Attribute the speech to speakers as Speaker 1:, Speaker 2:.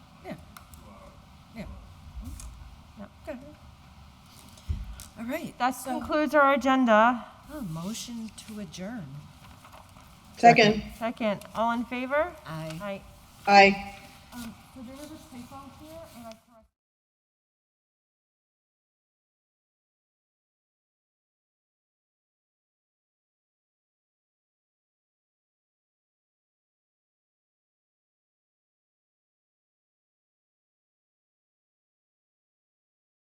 Speaker 1: All right.
Speaker 2: That
Speaker 1: so-
Speaker 2: concludes our agenda.
Speaker 1: Oh, Motion to adjourn.
Speaker 3: Second.
Speaker 2: Second, all in favor?
Speaker 1: Aye.
Speaker 2: Aye.
Speaker 3: Aye.
Speaker 2: Um, so there was a typo here, and I.